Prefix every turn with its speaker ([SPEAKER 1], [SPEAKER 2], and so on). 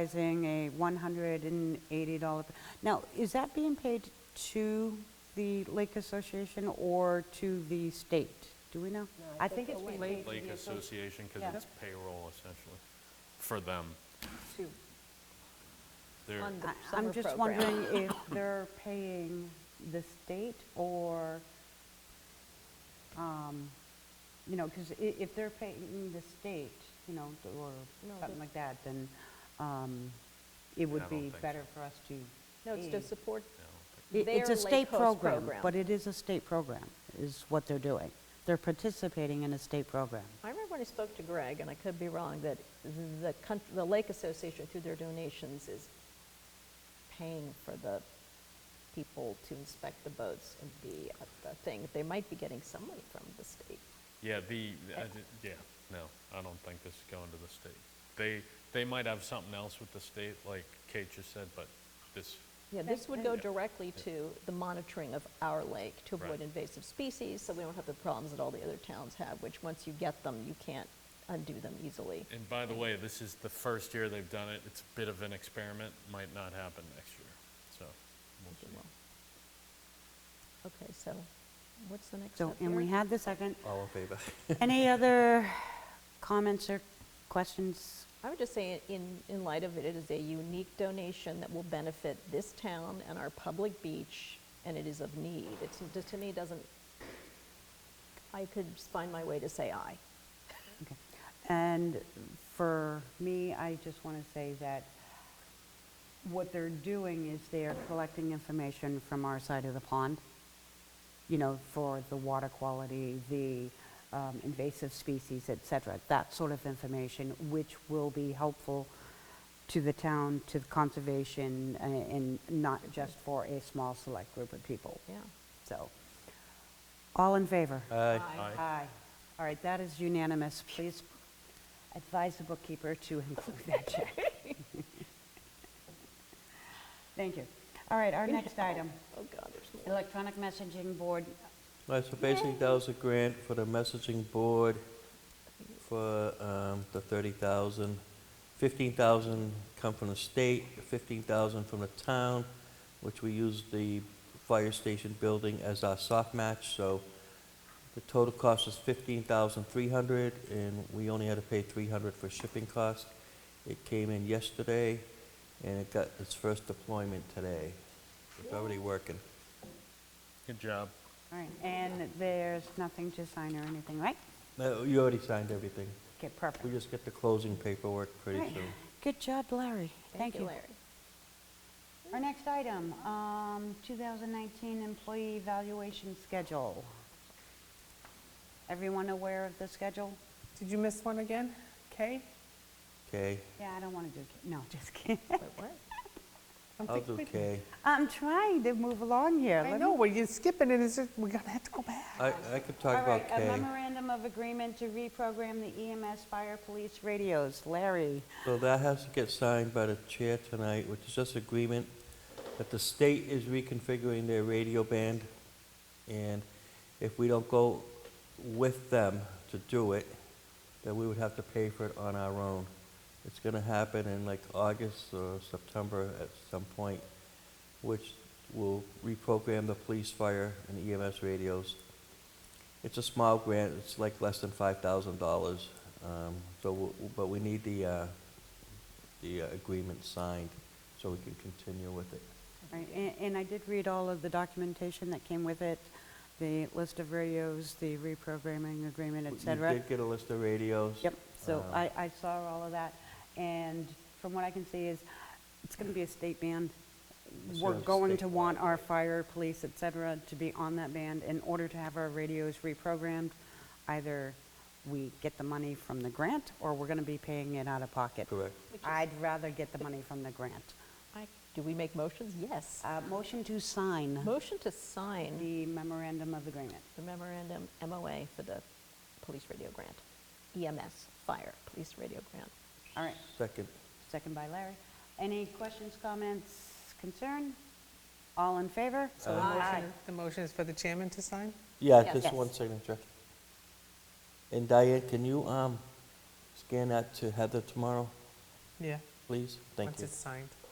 [SPEAKER 1] advertising a $180, now, is that being paid to the Lake Association or to the state? Do we know? I think it's being paid.
[SPEAKER 2] Lake Association, because
[SPEAKER 3] Yeah.
[SPEAKER 2] it's payroll essentially, for them.
[SPEAKER 3] Two.
[SPEAKER 2] They're,
[SPEAKER 3] On the
[SPEAKER 1] I-
[SPEAKER 3] summer
[SPEAKER 1] I'm just
[SPEAKER 3] program.
[SPEAKER 1] wondering if they're paying the state or, um, you know, because if they're paying the state, you know, or
[SPEAKER 3] No,
[SPEAKER 1] something
[SPEAKER 3] but-
[SPEAKER 1] like that, then um, it
[SPEAKER 2] I
[SPEAKER 1] would
[SPEAKER 2] don't
[SPEAKER 1] be
[SPEAKER 2] think
[SPEAKER 1] better
[SPEAKER 2] so.
[SPEAKER 1] for us to.
[SPEAKER 3] No, it's
[SPEAKER 1] aid.
[SPEAKER 3] to support,
[SPEAKER 2] you know,
[SPEAKER 1] It- It's
[SPEAKER 3] Their
[SPEAKER 1] a
[SPEAKER 3] Lake
[SPEAKER 1] state
[SPEAKER 3] Coast
[SPEAKER 1] program,
[SPEAKER 3] program.
[SPEAKER 1] but it is a state program, is what they're doing. They're participating in a state program.
[SPEAKER 3] I remember when I spoke to Greg, and I could be wrong, that the, coun- the Lake Association through their donations is paying for the people to inspect the boats and be at the thing. They might be getting some money from the state.
[SPEAKER 2] yeah, the, I di- yeah, no, I don't think this is going to the state. They, they might have something else with the state, like Kate just said, but this,
[SPEAKER 3] Yeah, this would go
[SPEAKER 2] Yeah.
[SPEAKER 3] directly to the monitoring of our lake to avoid
[SPEAKER 2] Right.
[SPEAKER 3] invasive species, so we don't have the problems that all the other towns have, which once you get them, you can't undo them easily.
[SPEAKER 2] and by the way, this is the first year they've done it. It's a bit of an experiment, might not happen next year, so. we'll
[SPEAKER 3] if you
[SPEAKER 2] see.
[SPEAKER 3] will. Okay, so what's the next
[SPEAKER 1] So,
[SPEAKER 3] step
[SPEAKER 1] and we
[SPEAKER 3] here?
[SPEAKER 1] had the second.
[SPEAKER 4] All in favor?
[SPEAKER 1] Any other comments or questions?
[SPEAKER 3] I would just say, in, in light of it, it is a unique donation that will benefit this town and our public beach, and it is of need. It's, just to me, doesn't, I could find my way to say aye.
[SPEAKER 1] Okay. And for me, I just want to say that what they're doing is they are collecting information from our side of the pond, you know, for the water quality, the um, invasive species, et cetera, that sort of information, which will be helpful to the town, to conservation, a- and not just for a small select group of people.
[SPEAKER 3] Yeah.
[SPEAKER 1] So, all in favor?
[SPEAKER 4] Aye.
[SPEAKER 2] Aye.
[SPEAKER 1] Aye. All right, that is unanimous. Please advise the bookkeeper to include that check. Thank you. All right, our next item,
[SPEAKER 3] Oh, God, there's more.
[SPEAKER 1] electronic messaging board.
[SPEAKER 4] All right, so basically, that was a grant for the messaging board for um, the 30,000. 15,000 come from the state, 15,000 from the town, which we use the fire station building as our soft match, so the total cost is 15,300, and we only had to pay 300 for shipping costs. It came in yesterday, and it got its first deployment today. It's already working.
[SPEAKER 2] Good job.
[SPEAKER 1] All right, and there's nothing to sign or anything, right?
[SPEAKER 4] No, You already signed everything.
[SPEAKER 1] Okay,
[SPEAKER 4] We
[SPEAKER 1] perfect.
[SPEAKER 4] just get the closing paperwork pretty
[SPEAKER 1] All right.
[SPEAKER 4] soon.
[SPEAKER 1] Good job, Larry.
[SPEAKER 3] Thank you, Larry.
[SPEAKER 1] Our next item, um, 2019 employee evaluation schedule. Everyone aware of the schedule?
[SPEAKER 5] Did you miss one again? Kay?
[SPEAKER 4] Okay,
[SPEAKER 1] Yeah, I don't want to do, no, just kidding.
[SPEAKER 3] Wait, what?
[SPEAKER 5] I'm
[SPEAKER 4] I'll
[SPEAKER 5] thinking
[SPEAKER 4] do
[SPEAKER 5] we-
[SPEAKER 4] K.
[SPEAKER 1] I'm trying to move along here.
[SPEAKER 5] I
[SPEAKER 1] Let
[SPEAKER 5] know,
[SPEAKER 1] me-
[SPEAKER 5] well, you're skipping it, it's, just- we're gonna have to go back.
[SPEAKER 4] I, I could talk
[SPEAKER 1] All right,
[SPEAKER 4] about
[SPEAKER 1] a
[SPEAKER 4] K.
[SPEAKER 1] memorandum of agreement to reprogram the EMS fire police radios. Larry,
[SPEAKER 4] So that has to get signed by the chair tonight, which is just agreement that the state is reconfiguring their radio band. And if we don't go with them to do it, then we would have to pay for it on our own. It's gonna happen in like August or September at some point, which will reprogram the police, fire, and EMS radios. It's a small grant, it's like less than five thousand dollars, um, so, w- w- but we need the, uh, the uh, agreement signed so we can continue with it.
[SPEAKER 1] Right, a- and I did read all of the documentation that came with it, the list of radios, the reprogramming agreement, et cetera.
[SPEAKER 4] You did get a list of radios.
[SPEAKER 1] Yep, so
[SPEAKER 4] Um,
[SPEAKER 1] I, I saw all of that, and from what I can see is, it's gonna be a state band.
[SPEAKER 4] It's
[SPEAKER 1] We're
[SPEAKER 4] gonna be
[SPEAKER 1] going to
[SPEAKER 4] statewide,
[SPEAKER 1] want our fire, police, et cetera, to be on that band in order to have our radios reprogrammed. Either we get the money from the grant, or we're gonna be paying it out of pocket.
[SPEAKER 4] Correct.
[SPEAKER 1] I'd rather get the money from the grant.
[SPEAKER 3] I- Do we make motions? Yes.
[SPEAKER 1] Uh, motion to sign
[SPEAKER 3] Motion to sign
[SPEAKER 1] Uh-huh. the memorandum of agreement.
[SPEAKER 3] the memorandum MOA for the police radio grant, EMS, fire, police radio grant.
[SPEAKER 1] All right,
[SPEAKER 4] Second,
[SPEAKER 1] second by Larry. Any questions, comments, concern? All in favor?
[SPEAKER 5] So the
[SPEAKER 1] Aye.
[SPEAKER 5] motion, the motion is for the chairman to sign?
[SPEAKER 4] yeah,
[SPEAKER 3] Yes.
[SPEAKER 4] just one signature. And Diane, can you, um, scan that to Heather tomorrow?
[SPEAKER 5] Yeah.
[SPEAKER 4] please? Thank
[SPEAKER 5] once
[SPEAKER 4] you.
[SPEAKER 5] it's signed.